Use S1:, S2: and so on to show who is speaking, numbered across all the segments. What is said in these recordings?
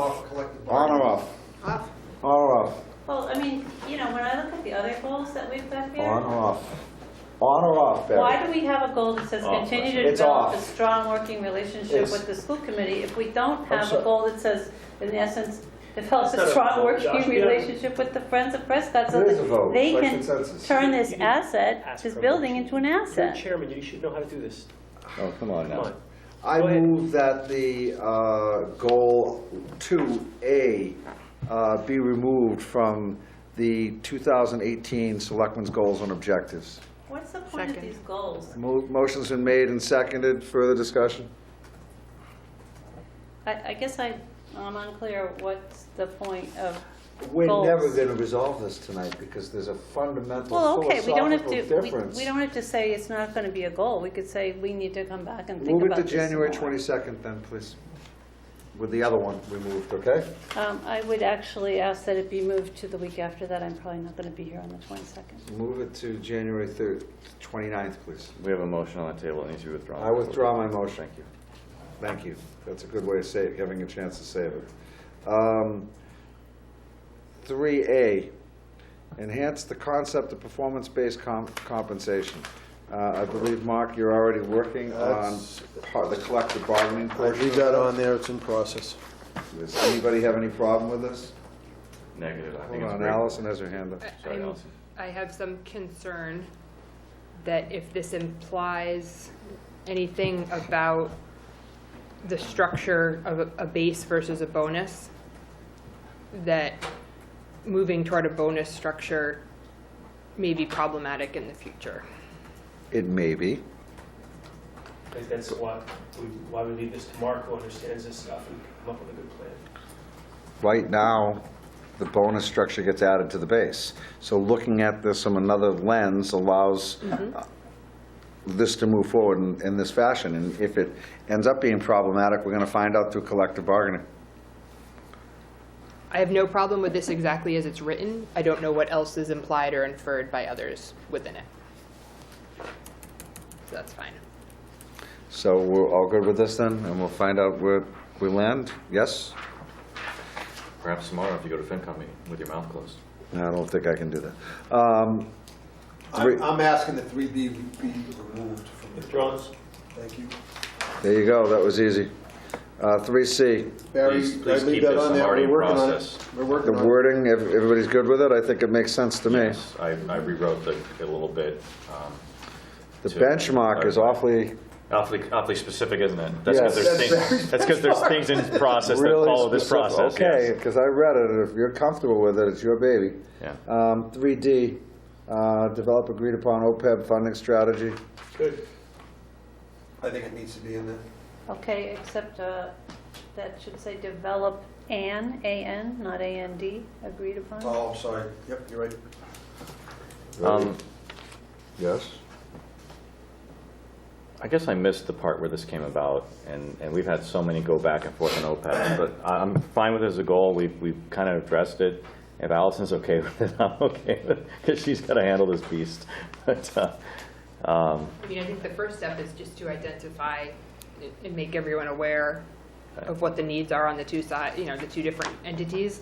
S1: off collective
S2: On
S1: bargaining.
S2: or off?
S3: Off.
S2: On or off?
S4: Well, I mean, you know, when I look at the other goals that we've got
S2: On
S4: here,
S2: or off? On or off, Barry?
S4: why do we have a goal that says
S5: Off.
S4: continue to
S2: It's
S4: develop a
S2: off.
S4: strong working relationship
S2: It's-
S4: with the school committee if we don't have
S2: sorry.
S4: a goal that says, in essence, develop
S5: not
S4: a
S5: a
S4: strong
S5: goal, Josh.
S4: working
S5: Yeah.
S4: relationship with the Friends of Prescott so
S2: It is a
S4: that
S2: vote,
S4: they
S2: by
S4: can
S2: consensus.
S4: turn this
S5: You can
S4: asset,
S5: ask
S4: this
S5: for a
S4: building
S5: motion.
S4: into an
S5: You're the
S4: asset.
S5: chairman, you should know how to do this.
S2: Oh, come on
S5: Come
S2: now.
S5: on.
S1: I
S5: Go ahead.
S1: move that the uh, goal 2A uh, be removed from the 2018 Selectmen's Goals and Objectives.
S4: What's the point of
S3: Second.
S4: these goals?
S1: Mo- Motion's been made and seconded. Further discussion?
S4: I, I guess I, I'm unclear what's the point of,
S1: We're
S4: Goals.
S1: never going to resolve this tonight because there's a
S4: well,
S1: fundamental
S4: okay, we don't have
S1: philosophical
S4: to, we-
S1: difference.
S4: we don't have to say it's not going to be a goal. We could say we need to come back and think
S1: Move it
S4: about
S1: to
S4: this
S1: January
S4: more.
S1: 22nd then, please. With the other one removed, okay?
S4: Um, I would actually ask that it be moved to the week after that. I'm probably not going to be here on the 22nd.
S1: Move it to January 3rd, 29th, please.
S6: We have a motion on the table, it needs to be withdrawn.
S1: I withdraw my motion.
S6: Thank you.
S1: Thank you. That's a good way of save, having a chance to save it. Um, 3A, enhance the concept of performance-based com- compensation. Uh, I believe, Mark, you're already working on
S7: That's-
S1: part, the collective bargaining
S7: I
S1: portion.
S7: leave
S1: of
S7: that
S1: it.
S7: on there, it's in process.
S1: Does anybody have any problem with this?
S6: Negative, I
S1: Hold
S6: think it's
S1: on,
S6: great.
S1: Allison has her hand up.
S6: Sorry,
S8: I'm-
S6: Allison.
S8: I have some concern that if this implies anything about the structure of a- a base versus a bonus, that moving toward a bonus structure may be problematic in the future.
S1: It may be.
S5: I think that's why we, why we leave this to Mark, who understands this stuff, and come up with a good plan.
S1: Right now, the bonus structure gets added to the base. So looking at this from another lens allows uh, this to move forward in, in this fashion. And if it ends up being problematic, we're going to find out through collective bargaining.
S8: I have no problem with this exactly as it's written. I don't know what else is implied or inferred by others within it. So that's fine.
S1: So we're all good with this then, and we'll find out where we land? Yes?
S6: Perhaps tomorrow, if you go to FinCom meeting with your mouth closed.
S1: No, I don't think I can do that. Um,
S7: I'm I'm asking that 3B be removed from the,
S5: Withdrawn.
S7: thank you.
S1: There you go, that was easy. Uh, 3C,
S7: Barry,
S6: Please-
S7: I
S6: please keep
S7: leave that
S6: this
S7: on there,
S6: already
S7: we're
S6: in
S7: working on it.
S6: process.
S7: We're
S1: the
S7: working on it.
S1: wording, ev- everybody's good with it? I think it makes sense to me.
S6: Yes, I I rewrote the, a little bit. um,
S1: The
S6: to-
S1: benchmark is awfully,
S6: Awfully, awfully specific, isn't it? That's because
S1: Yes.
S6: there's things, that's 'cause there's things in process that
S1: Really
S6: follow this
S1: specific.
S6: process,
S1: Okay,
S6: yes.
S1: because I read it, and if you're comfortable with it, it's your baby.
S6: Yeah.
S1: Um, 3D, uh, develop agreed upon OPEB funding strategy.
S5: Good.
S7: I think it needs to be in there.
S4: Okay, except uh, that should say develop an, A-N, not A-N-D, agreed upon?
S7: Oh, I'm sorry, yep, you're right.
S6: Um,
S1: Yes?
S6: I guess I missed the part where this came about, and, and we've had so many go back and forth on OPEB, but I- I'm fine with it as a goal, we've, we've kind of addressed it. If Allison's okay with it, I'm okay with it, because she's got to handle this beast. But, uh, um,
S8: I mean, I think the first step is just to identify and make everyone aware of what the needs are on the two side, you know, the two different entities.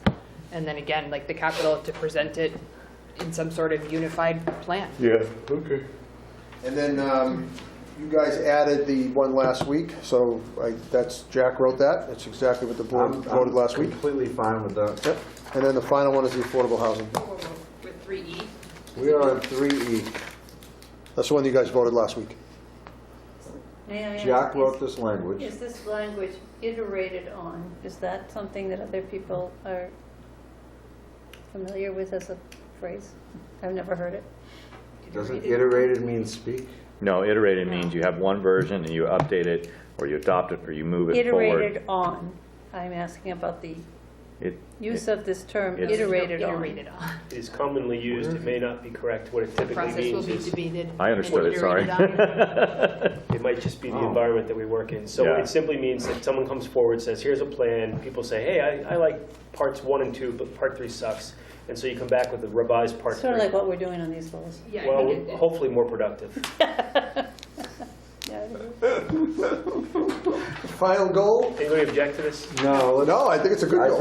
S8: And then again, like the capital, to present it in some sort of unified plan.
S2: Yeah, okay.
S7: And then um, you guys added the one last week, so I- that's, Jack wrote that, that's exactly what the board voted last week.
S1: Completely fine with that.
S7: Yep, and then the final one is the affordable housing.
S8: With three E,
S1: We are E. on 3E.
S7: That's the one you guys voted last week.
S4: May I ask,
S1: Jack wrote
S4: is-
S1: this language.
S4: Is this language iterated on? Is that something that other people are familiar with as a phrase? I've never heard it.
S1: Doesn't iterated mean speak?
S6: No, iterated means you have one version and you update it, or you adopt it, or you move it forward.
S4: Iterated on, I'm asking about the
S6: It-
S4: use of this term,
S6: It's-
S4: iterated on.
S8: on.
S5: It is commonly used, it may not be correct, what it
S8: The
S5: typically
S8: process will
S5: means
S8: be
S5: is,
S8: debated.
S6: I understood it,
S8: and
S6: sorry.
S8: iterated on.
S5: it might just be the
S1: Oh.
S5: environment that we work in. So
S6: Yeah.
S5: it simply means that someone comes forward, says, here's a plan, people say, hey, I, I like parts one and two, but part three sucks. And so you come back with a revised part
S4: Sort of like
S5: three.
S4: what we're doing on these goals.
S8: Yeah, I
S5: Well,
S8: think it-
S5: hopefully more productive.
S4: Yeah, it is.
S7: Final goal?
S5: Anybody object to this?
S1: No,
S7: No, I think it's a good goal.